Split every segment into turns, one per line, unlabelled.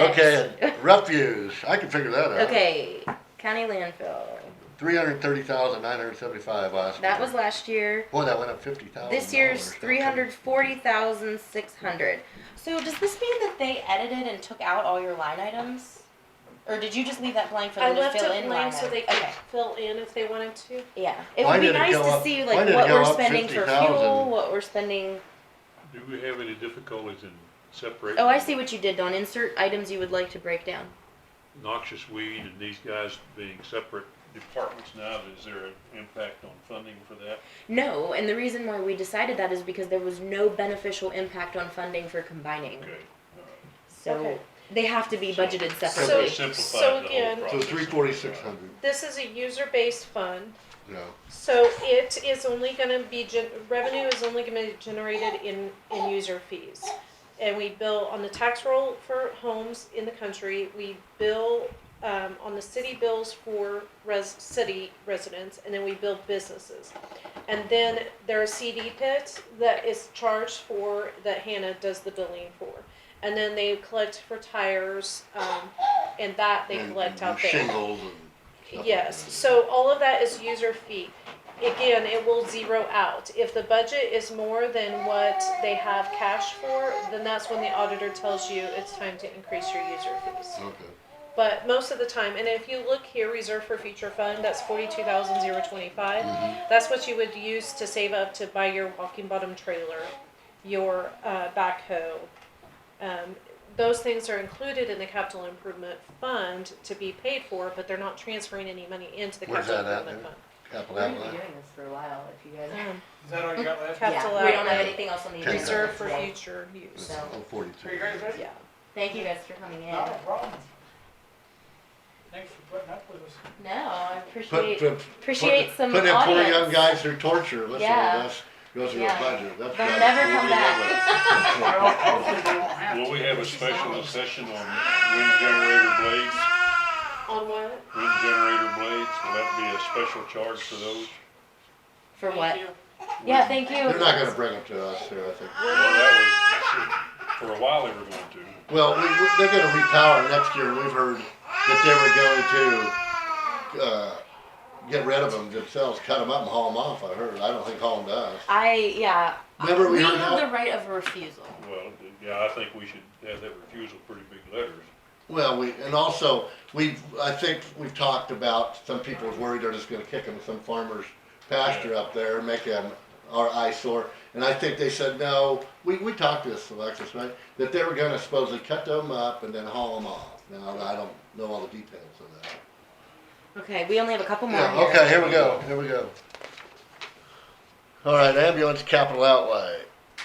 Okay, refuse, I can figure that out.
Okay, county landfill.
Three hundred thirty thousand nine hundred seventy-five last.
That
year.
was last year.
Boy, that went up fifty thousand.
This year's three hundred forty thousand six hundred. So does this mean that they edited and took out all your line items? Or did you just leave that blank for
I
them to
left
fill
it
in line
blank so they
item?
could
Okay,
fill in if they wanted to.
yeah. It
Why
would be
did it
nice
go
to
up-
see
why
like
did it
what
go
we're
up
spending for
50,000?
fuel, what we're spending.
Do we have any difficulties in separating?
Oh, I see what you did, Don. Insert items you would like to break down.
Noxious weed and these guys being separate departments now, is there an impact on funding for that?
No, and the reason why we decided that is because there was no beneficial impact on funding for combining.
Okay.
So
Okay.
they have to be budgeted separately.
So
So-
we simplified
so
the whole
again-
So
process.
three forty-six hundred,
This is a user-based fund,
yeah.
so it is only gonna be, gen- revenue is only gonna be generated in, in user fees. And we bill on the tax roll for homes in the country, we bill, um, on the city bills for res, city residents, and then we bill businesses. And then there are CD pits that is charged for, that Hannah does the billing for. And then they collect for tires, um, and that they
And-
collect
and
out there.
Shingles and. stuff like
Yes,
that.
so all of that is user fee. Again, it will zero out. If the budget is more than what they have cash for, then that's when the auditor tells you it's time to increase your user fees.
Okay,
But most of the time, and if you look here, reserve for future fund, that's forty-two thousand zero twenty-five.
Mhm.
That's what you would use to save up to buy your walking bottom trailer, your, uh, backhoe. Um, those things are included in the capital improvement fund to be paid for, but they're not transferring any money into the
Where's
capital
that at,
improvement
Lou?
fund.
capital
We're gonna be
outlay,
doing this for a while if you guys.
Um,
Is that all you got left?
Okay. Capital
yeah, we don't
outlay.
have anything else on the agenda.
Reserve for
today.
future use,
So-
oh, forty-two.
Are you guys ready?
yeah.
Thank you guys for coming in.
Not a problem. Thanks for putting up with us.
No, I
Put,
appreciate
put,
appreciate
put-
some
Put them poor
audience.
young guys through torture, listen to
Yeah.
us, go through a
Yeah.
budget, that's.
They'll
gotta
never
be
come
the
Well,
other way.
hopefully they won't have to.
Will we have a special session on wind generator blades,
On what?
wind generator blades, will that be a special charge for those?
For what?
Thank you.
Yeah, thank you.
They're not gonna bring them to us here, I think.
Well, that was, for a while they were going to.
Well, we, we- they're gonna repower next year, and we've heard that they were going to, uh, get rid of them themselves, cut them up and haul them off, I heard, I don't think haul them to us.
I yeah.
Remember we
we
heard
have
that?
the right of refusal.
Well, yeah, I think we should have that refusal pretty big letters.
Well, we, and also, we've, I think we've talked about, some people are worried they're just gonna kick them to some farmer's pasture up there and make them our eyesore. And I think they said, no, we, we talked to this, Alexis, right, that they were gonna supposedly cut them up and then haul them off. Now, I don't know all the details of that.
Okay, we only have a couple more
Yeah,
here.
okay, here we go, here we go. All right, ambulance capital outlay,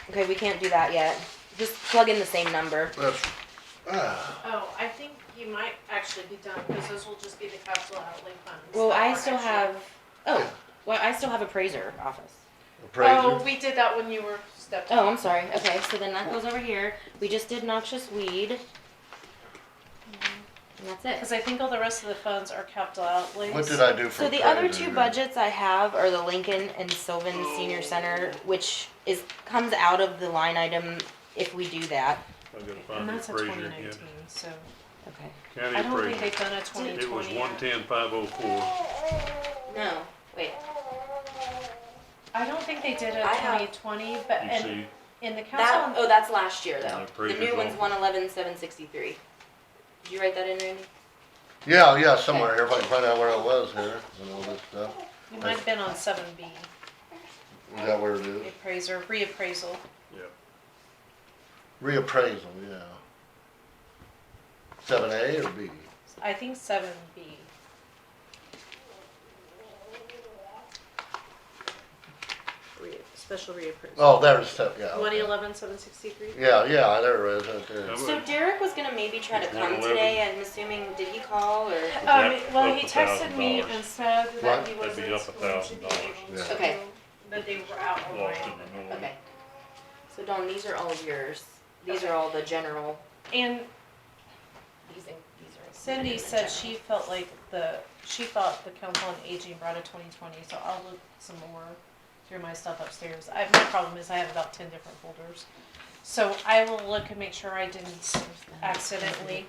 Okay, we can't do that yet. Just plug in the same number.
that's, ah,
Oh, I think you might actually be done, because those will just be the capital outlay funds.
Well,
that
I
are
still
actually-
have. Oh, well, I still have appraiser office.
Oh,
appraiser,
we did that when you were stepped.
Oh, I'm sorry. Okay, so then that goes over here. We just did noxious weed. And that's it.
Because I think all the rest of the funds are capital outlays.
what did I do for
So the other
appraiser
two
there?
budgets I have are the Lincoln and Sylvan Senior Center, which is, comes out of the line item if we do that.
I gotta
And
find
that's
the
a
appraiser
twenty
again.
nineteen, so
Okay.
County
I don't think
appraiser.
they've done a twenty
It was
twenty
one
yet.
ten five oh four.
No, wait.
I don't think they did a
I have-
twenty twenty, but
You
and
see,
in the
That,
council,
oh, that's last year though.
Yeah,
The
pretty
new
good
one's
one.
one eleven, seven sixty-three. Did you write that in, Randy?
Yeah, yeah, somewhere here, if I can find out where it was here, and all this stuff,
you might have been on seven B,
is that where it is?
appraiser, reappraisal.
Reappraisal, yeah. Seven A or B?
I think seven B. Re, special reappraisal.
Oh, there's seven, yeah.
One
okay.
eleven, seven sixty-three?
Yeah, yeah, there it is, right there.
That
So Derek was gonna maybe try to
It's
come
111.
today, I'm assuming, did he call or?
Um,
Yep,
well,
up
he
a
texted me
$1,000.
and said
What?
that he
That'd
wasn't.
be up a
going to
thousand
be
dollars.
able
Yeah.
to-
Okay.
That they were out of
lost
line.
in the noise.
Okay. So Dawn, these are all yours. These are all the general,
And
these, in- these are.
Cindy
included in the
said
general.
she felt like the, she thought the council on aging brought a twenty twenty, so I'll look some more through my stuff upstairs. I, my problem is I have about ten different folders. So I will look and make sure I didn't accidentally